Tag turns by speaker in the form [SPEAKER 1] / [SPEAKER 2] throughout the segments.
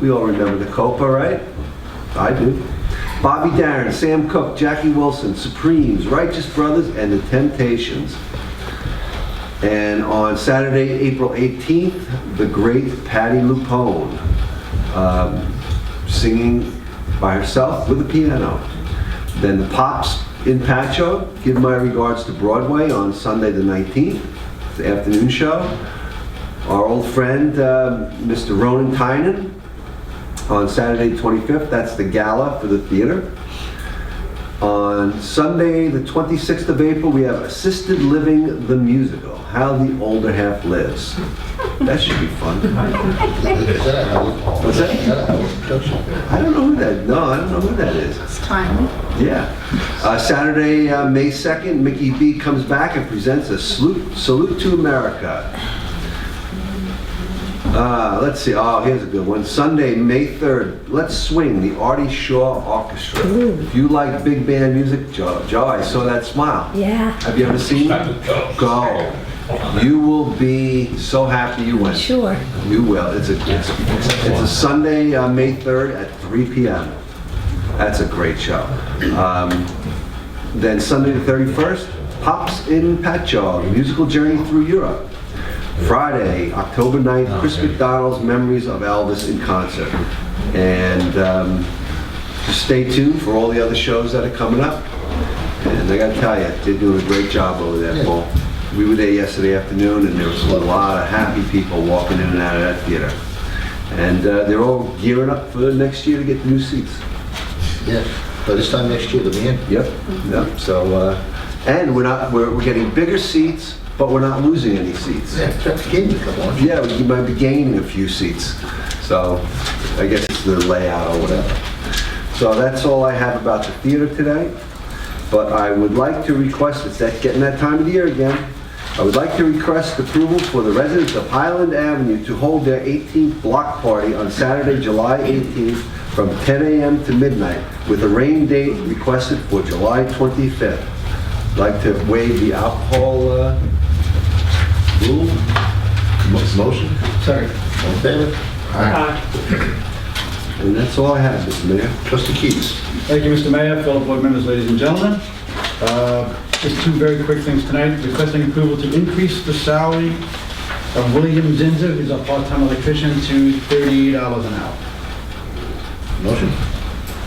[SPEAKER 1] We all remember the Copa, right? I do. Bobby Darin, Sam Cooke, Jackie Wilson, Supremes, Righteous Brothers, and The Temptations. And on Saturday, April 18th, the great Patty Lupone, um, singing by herself with a piano. Then the Pops in Pacho, give my regards to Broadway on Sunday the 19th, the afternoon show. Our old friend, um, Mr. Ronan Tynan, on Saturday the 25th, that's the gala for the theater. On Sunday, the 26th of April, we have Assisted Living the Musical, How the Older Half Lives. That should be fun.
[SPEAKER 2] Is that a Howard?
[SPEAKER 1] What's that?
[SPEAKER 2] Is that a Howard Joseph?
[SPEAKER 1] I don't know who that, no, I don't know who that is.
[SPEAKER 3] It's timely.
[SPEAKER 1] Yeah. Uh, Saturday, uh, May 2nd, Mickey B comes back and presents a salute, salute to America. Uh, let's see, oh, here's a good one. Sunday, May 3rd, Let's Swing, the Artie Shaw Orchestra. If you like big band music, Joe, Joe, I saw that smile.
[SPEAKER 4] Yeah,
[SPEAKER 1] Have you ever seen it? Go. You will be so happy you went.
[SPEAKER 4] sure.
[SPEAKER 1] You will. It's a, it's it's a Sunday, uh, May 3rd at 3 PM. That's a great show. Um, Then Sunday the 31st, Pops in Patchogue, a musical journey through Europe. Friday, October 9th, Chris McDonald's Memories of Elvis in Concert. And um, just stay tuned for all the other shows that are coming up. And I gotta tell you, they're doing a great job over there, Paul. We were there yesterday afternoon, and there was a lot of happy people walking in and out of that theater. And uh, they're all gearing up for next year to get new seats.
[SPEAKER 2] Yeah, but this time next year, the man.
[SPEAKER 1] Yep, yep, so, uh, and we're not, we're, we're getting bigger seats, but we're not losing any seats.
[SPEAKER 2] Yeah, that's the game, come on.
[SPEAKER 1] Yeah, we might be gaining a few seats, so I guess it's the layout or whatever. So that's all I have about the theater today, but I would like to request, it's that, getting that time of the year again, I would like to request approval for the residents of Highland Avenue to hold their 18th block party on Saturday, July 18th, from 10 a.m. to midnight, with a rain date requested for July 25th. I'd Like to waive the alcohol uh, rule?
[SPEAKER 2] Mo- Motion? Sorry. All in favor? Aye.
[SPEAKER 1] And that's all I have, Mr. Mayor.
[SPEAKER 2] Trustee Keats.
[SPEAKER 5] Thank you, Mr. Mayor, fellow board members, ladies and gentlemen. Uh, Just two very quick things tonight. Requesting approval to increase the salary of William Zinzer, who's a part-time electrician, to $38 an hour.
[SPEAKER 2] Motion?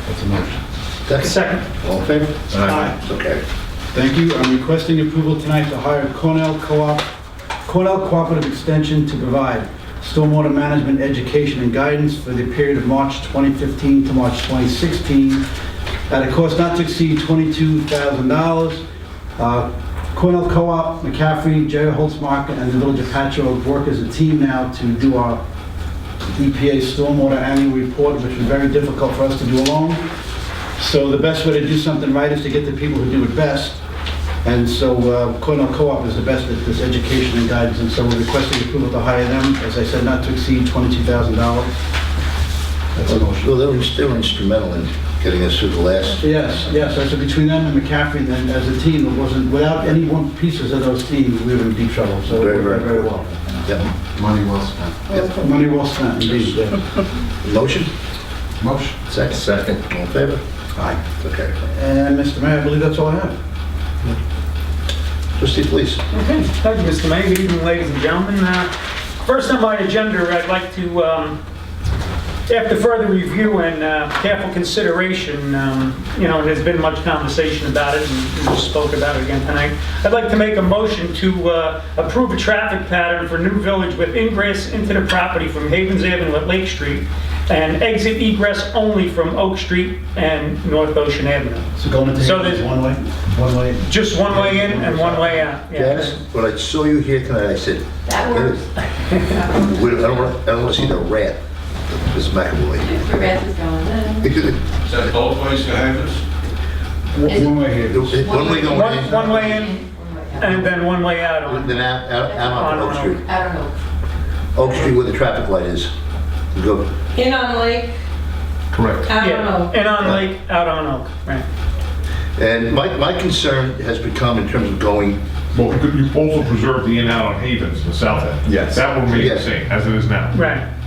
[SPEAKER 5] That's a motion. Second.
[SPEAKER 2] All in favor?
[SPEAKER 5] Aye.
[SPEAKER 2] It's okay.
[SPEAKER 5] Thank you. I'm requesting approval tonight to hire Cornell Co-op, Cornell Cooperative Extension to provide stormwater management education and guidance for the period of March 2015 to March 2016 at a cost not to exceed $22,000. Uh, Cornell Co-op, McCaffrey, Jerry Holtzmark, and the Village of Patchogue work as a team now to do our EPA stormwater annual report, which was very difficult for us to do alone. So the best way to do something right is to get the people who do it best. And so uh, Cornell Co-op is the best at this education and guidance, and so we're requesting approval to hire them, as I said, not to exceed $22,000. That's a motion.
[SPEAKER 2] Well, they were they were instrumental in getting us through the last,
[SPEAKER 5] Yes, yes, so between them and McCaffrey, then as a team, it wasn't, without any one pieces of those teams, we were in deep trouble, so
[SPEAKER 2] Very,
[SPEAKER 5] we're
[SPEAKER 2] very
[SPEAKER 5] very well.
[SPEAKER 2] yeah.
[SPEAKER 6] Money well spent.
[SPEAKER 5] Money well spent, indeed, yeah.
[SPEAKER 2] Motion?
[SPEAKER 6] Motion.
[SPEAKER 2] Second. Second. All in favor? Aye. It's okay.
[SPEAKER 5] And Mr. Mayor, I believe that's all I have.
[SPEAKER 2] Trustee Felice.
[SPEAKER 7] Okay, thank you, Mr. Mayor. Good evening, ladies and gentlemen. Uh, First on my agenda, I'd like to, um, after further review and uh, careful consideration, um, you know, there's been much conversation about it, and we spoke about it again tonight. I'd like to make a motion to uh, approve a traffic pattern for New Village with ingress into the property from Havens Avenue at Lake Street and exit egress only from Oak Street and North Ocean Avenue.
[SPEAKER 5] So going into
[SPEAKER 7] So
[SPEAKER 5] Hager's
[SPEAKER 7] there's-
[SPEAKER 5] one way, one way.
[SPEAKER 7] Just one way in and one way out. Yeah.
[SPEAKER 2] Janice, when I saw you here tonight, I said,
[SPEAKER 3] That works.
[SPEAKER 2] "Wait, I don't want, I don't want to see the rat, Ms. McAvoy.
[SPEAKER 3] Mr. Reds is going in.
[SPEAKER 8] Is that both ways to have us?
[SPEAKER 5] One one way here.
[SPEAKER 2] One way going
[SPEAKER 7] One,
[SPEAKER 2] in.
[SPEAKER 7] one way in and then one way out on.
[SPEAKER 2] Then out, out, out on Oak Street.
[SPEAKER 3] I don't know.
[SPEAKER 2] Oak Street where the traffic light is. Go.
[SPEAKER 3] In on the lake,
[SPEAKER 6] Correct.
[SPEAKER 3] I don't
[SPEAKER 7] Yeah,
[SPEAKER 3] know.
[SPEAKER 7] and on Lake, out on Oak, right.
[SPEAKER 2] And my, my concern has become in terms of going,
[SPEAKER 9] Well, you also preserve the in-out on Havens, the south end.
[SPEAKER 1] Yes.
[SPEAKER 9] That will remain the
[SPEAKER 2] Yes.
[SPEAKER 9] same as it is now.
[SPEAKER 7] Right.